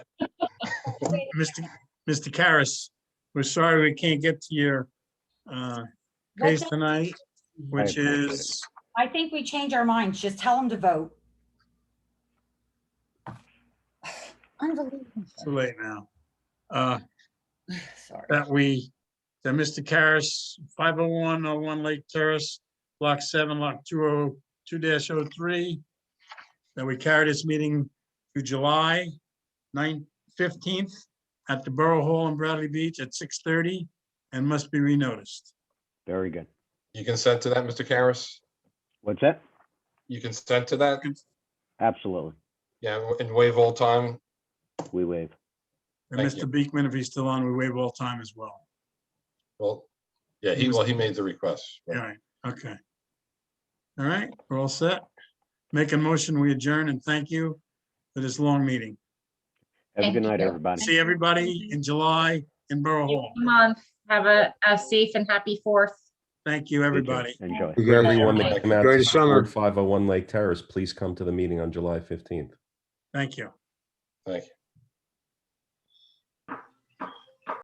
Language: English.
Mr. Mr. Karas, we're sorry we can't get to your uh, case Let's- tonight, which is, I think we change our minds. Just tell them to vote. Unbelievable. too late now. Uh, Sorry. that we, that Mr. Karas, 501 01 Lake Terrace, Block 7, Lot oh, 202-03, that we carry this meeting to July 9th, 15th at the Borough Hall in Bradley Beach at 6:30 and must be renoticed. Very good. You consent to that, Mr. Karas? What's that? You consent to that? Absolutely. Yeah, and waive all time? We waive. And Thank you. Mr. Beekman, if he's still on, we waive all time as well. Well, yeah, he, well, he made the request. All right, okay. All right, we're all set. Make a motion, we adjourn and thank you for this long meeting. Have a Thank good night, you. everybody. See everybody in July in Borough Hall. month. Have a, a safe and happy fourth. Thank you, You too. everybody. Enjoy. To Everyone Bye. that come out Enjoy to the summer. support 501 Lake Terrace, please come to the meeting on July 15th. Thank you. Thank you.